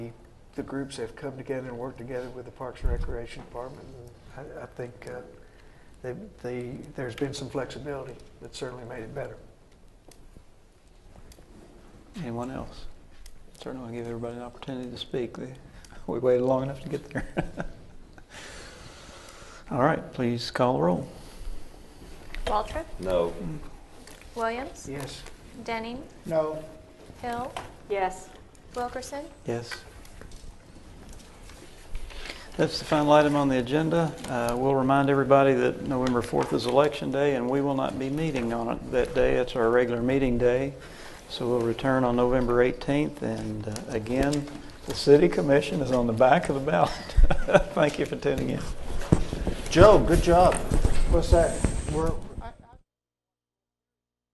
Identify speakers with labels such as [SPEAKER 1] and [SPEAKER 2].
[SPEAKER 1] the groups have come together and worked together with the Parks and Recreation Department. And I, I think uh, they, they, there's been some flexibility that certainly made it better.
[SPEAKER 2] Anyone else? Certainly want to give everybody an opportunity to speak. They- We waited long enough to get there. All right, please call the roll.
[SPEAKER 3] Waltrip?
[SPEAKER 4] No.
[SPEAKER 3] Williams?
[SPEAKER 1] Yes.
[SPEAKER 3] Denning?
[SPEAKER 1] No.
[SPEAKER 3] Hill?
[SPEAKER 5] Yes.
[SPEAKER 3] Wilkerson?
[SPEAKER 2] Yes. That's the final item on the agenda. Uh, We'll remind everybody that November 4th is Election Day, and we will not be meeting on it that day. It's our regular meeting day. So we'll return on November 18th, and uh, again, the City Commission is on the back of the ballot. Thank you for tuning in.
[SPEAKER 4] Joe, good job.
[SPEAKER 1] What's that? We're,